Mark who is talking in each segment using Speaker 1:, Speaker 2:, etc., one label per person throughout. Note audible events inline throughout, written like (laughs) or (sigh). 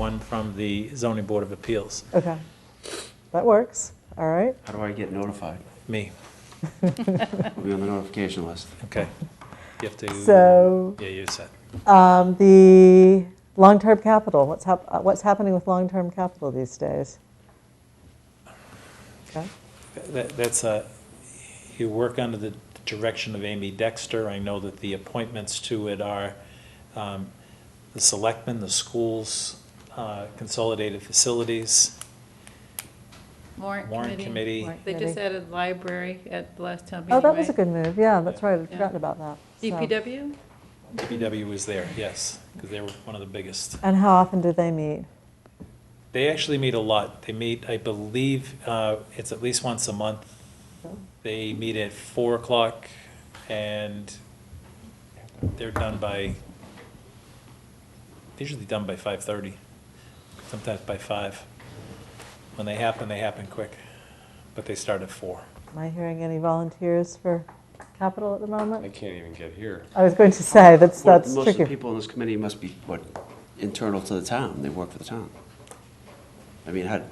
Speaker 1: one from the zoning board of appeals,
Speaker 2: Okay. That works. All right.
Speaker 3: How do I get notified?
Speaker 1: me,
Speaker 3: I'll be on the notification list.
Speaker 1: okay? You have to.
Speaker 2: So-
Speaker 1: Yeah, you said.
Speaker 2: Um, the long-term capital, what's, hap- uh, what's happening with long-term capital these days? Okay.
Speaker 1: That- That's a, you work under the direction of Amy Dexter. I know that the appointments to it are um, the selectmen, the schools, uh, consolidated facilities,
Speaker 4: Warrant
Speaker 1: warrant committee.
Speaker 4: committee.
Speaker 2: Warrant
Speaker 4: They just
Speaker 2: committee.
Speaker 4: added library at the last town meeting,
Speaker 2: Oh, that was a
Speaker 4: right?
Speaker 2: good move. Yeah, that's right. I'd
Speaker 4: Yeah.
Speaker 2: forgotten about that. So-
Speaker 4: DPW?
Speaker 1: DPW was there, yes, because they were one of the biggest.
Speaker 2: And how often do they meet?
Speaker 1: They actually meet a lot. They meet, I believe, uh, it's at least once a month. They meet at four o'clock and they're done by, they're usually done by five thirty, sometimes by five. When they happen, they happen quick, but they start at four.
Speaker 2: Am I hearing any volunteers for capital at the
Speaker 5: I
Speaker 2: moment?
Speaker 5: can't even get here.
Speaker 2: I was going to say, that's,
Speaker 3: Well,
Speaker 2: that's
Speaker 3: Most of the
Speaker 2: tricky.
Speaker 3: people in this committee must be, what, internal to the town, they work for the town. I mean, how,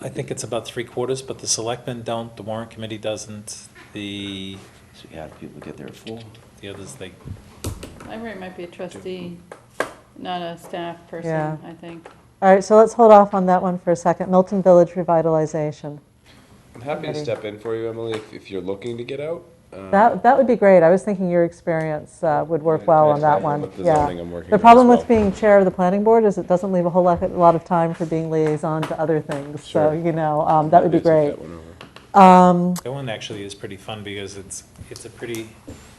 Speaker 1: I think it's about three quarters, but the selectmen don't, the warrant committee doesn't, the,
Speaker 3: so how do people get there at four?
Speaker 1: the others, they,
Speaker 4: Library might be a trustee, not a staff
Speaker 2: Yeah.
Speaker 4: person, I think.
Speaker 2: All right, so let's hold off on that one for a second. Milton Village revitalization.
Speaker 5: I'm happy to
Speaker 2: Somebody-
Speaker 5: step in for you, Emily, if, if you're looking to get out. Um,
Speaker 2: That, that would be great. I was thinking your experience uh, would work
Speaker 5: I-
Speaker 2: well
Speaker 5: I
Speaker 2: on that
Speaker 5: tried
Speaker 2: one.
Speaker 5: with the
Speaker 2: Yeah.
Speaker 5: zoning I'm working
Speaker 2: The
Speaker 5: on as
Speaker 2: problem with
Speaker 5: well.
Speaker 2: being chair of the planning board is it doesn't leave a whole lot, a lot of time for being liaison to other things. So,
Speaker 5: Sure.
Speaker 2: you know, um, that would be
Speaker 5: I
Speaker 2: great. Um,
Speaker 5: took that one over.
Speaker 1: that one actually is pretty fun because it's, it's a pretty,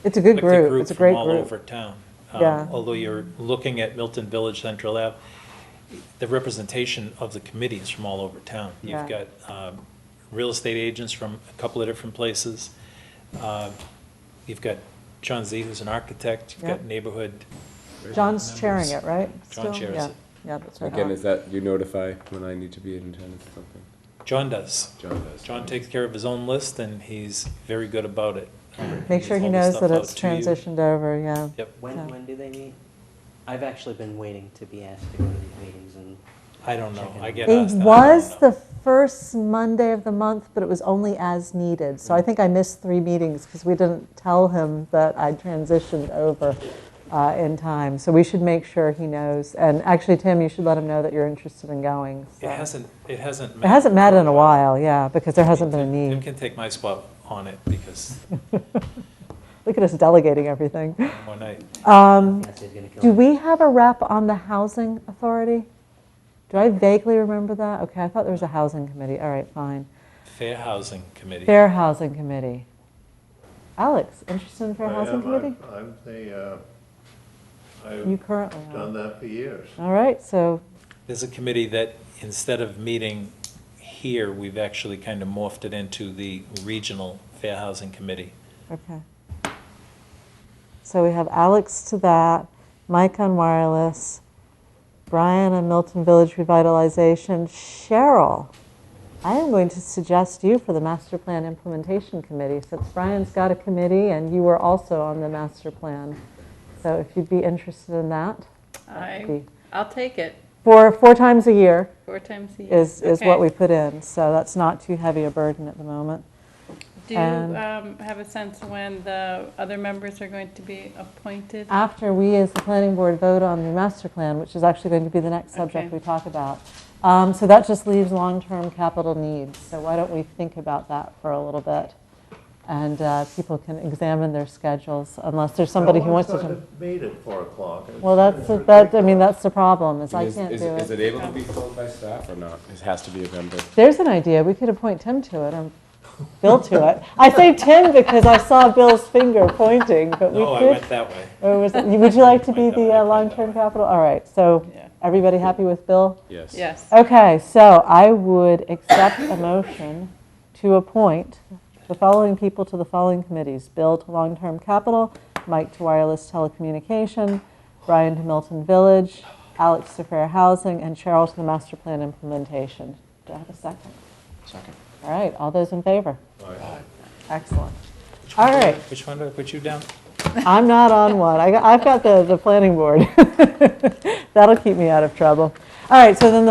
Speaker 2: It's a good
Speaker 1: Like the
Speaker 2: group. It's a great
Speaker 1: From all over
Speaker 2: group.
Speaker 1: town. Um,
Speaker 2: Yeah.
Speaker 1: Although you're looking at Milton Village Central Ave, the representation of the committee is from all over town. You've
Speaker 2: Yeah.
Speaker 1: got um, real estate agents from a couple of different places. Uh, You've got John Z, who's an architect. You've got
Speaker 2: Yeah.
Speaker 1: neighborhood.
Speaker 2: John's chairing it,
Speaker 1: members.
Speaker 2: right?
Speaker 1: John
Speaker 2: Still?
Speaker 1: chairs
Speaker 2: Yeah.
Speaker 1: it.
Speaker 2: Yeah, that's
Speaker 5: Again,
Speaker 2: right.
Speaker 5: is that, you notify when I need to be in attendance or something?
Speaker 1: John does.
Speaker 5: John does.
Speaker 1: John takes care of his own list, and he's very good about it. Um,
Speaker 2: Make sure he
Speaker 1: All the
Speaker 2: knows
Speaker 1: stuff
Speaker 2: that
Speaker 1: out
Speaker 2: it's
Speaker 1: to you.
Speaker 2: transitioned over, yeah.
Speaker 1: Yep.
Speaker 2: Yeah.
Speaker 6: When, when do they meet? I've actually been waiting to be asked to go to these meetings and.
Speaker 1: I don't know. I get
Speaker 2: It
Speaker 1: asked that. I don't
Speaker 2: was
Speaker 1: know.
Speaker 2: the first Monday of the month, but it was only as needed.
Speaker 1: Mm.
Speaker 2: So I think I missed three meetings because we didn't tell him that I transitioned over uh, in time. So we should make sure he knows. And actually, Tim, you should let him know that you're interested in going. so.
Speaker 1: It hasn't, it hasn't.
Speaker 2: It hasn't met in a while, yeah, because there hasn't been a
Speaker 1: Tim
Speaker 2: need.
Speaker 1: can take my spot on it because
Speaker 2: Look at us delegating everything. Um,
Speaker 1: one night,
Speaker 6: Nancy's gonna kill
Speaker 2: Do
Speaker 6: me.
Speaker 2: we have a rep on the Housing Authority? Do I vaguely remember that? Okay, I thought there was a Housing Committee. All right, fine.
Speaker 1: Fair Housing Committee.
Speaker 2: Fair Housing Committee. Alex, interested in Fair
Speaker 7: I
Speaker 2: Housing
Speaker 7: am.
Speaker 2: Committee?
Speaker 7: I'm- I'm the, uh,
Speaker 2: You
Speaker 7: I've
Speaker 2: currently
Speaker 7: done
Speaker 2: are.
Speaker 7: that for years.
Speaker 2: All right, so,
Speaker 1: There's a committee that, instead of meeting here, we've actually kind of morphed it into the Regional Fair Housing Committee.
Speaker 2: okay. So we have Alex to that, Mike on wireless, Brian on Milton Village Revitalization, Cheryl. I am going to suggest you for the Master Plan Implementation Committee, since Brian's got a committee and you were also on the master plan. So if you'd be interested in that,
Speaker 4: I,
Speaker 2: be-
Speaker 4: I'll take it,
Speaker 2: for, four times a year.
Speaker 4: four times a year.
Speaker 2: is, is
Speaker 4: Okay.
Speaker 2: what we put in, so that's not too heavy a burden at the moment.
Speaker 4: Do you
Speaker 2: and-
Speaker 4: um, have a sense when the other members are going to be appointed?
Speaker 2: After we, as the planning board, vote on the master plan, which is actually going to be the next subject
Speaker 4: Okay.
Speaker 2: we talk about, um, so that just leaves long-term capital needs, so why don't we think about that for a little bit? And uh, people can examine their schedules, unless there's somebody who wants to.
Speaker 7: Oh, I
Speaker 2: jump-
Speaker 7: wanted to meet at four o'clock. It's-
Speaker 2: Well, that's,
Speaker 7: it's
Speaker 2: that, I mean,
Speaker 7: ridiculous.
Speaker 2: that's the problem, is I
Speaker 5: Is-
Speaker 2: can't
Speaker 5: is-
Speaker 2: do
Speaker 5: Is
Speaker 2: it.
Speaker 5: it able to be filled by staff or not? It has to be a member.
Speaker 2: There's an idea, we could appoint Tim to it, or Bill to it. I say Tim because I saw Bill's finger pointing, but we
Speaker 1: No, Oh, I
Speaker 2: could
Speaker 1: went that way.
Speaker 2: Or was it, would you like to be
Speaker 1: Like that,
Speaker 2: the
Speaker 1: like
Speaker 2: uh,
Speaker 1: that.
Speaker 2: long-term capital? All right, so
Speaker 4: Yeah.
Speaker 2: everybody happy with Bill?
Speaker 5: Yes.
Speaker 4: Yes.
Speaker 2: Okay, so I would accept a motion to appoint the following people to the following committees. Bill to long-term capital, Mike to wireless telecommunication, Brian to Milton Village, Alex to fair housing, and Cheryl to the master plan implementation. Do I have a second?
Speaker 3: Second.
Speaker 2: All right, all those in favor?
Speaker 1: Aye.
Speaker 2: Excellent.
Speaker 1: Which
Speaker 2: All
Speaker 1: one did I-
Speaker 2: right.
Speaker 1: Which one did I put you down?
Speaker 2: I'm (laughs) not on one. I, have got the, the planning board. That'll keep me out of trouble. All right, so then the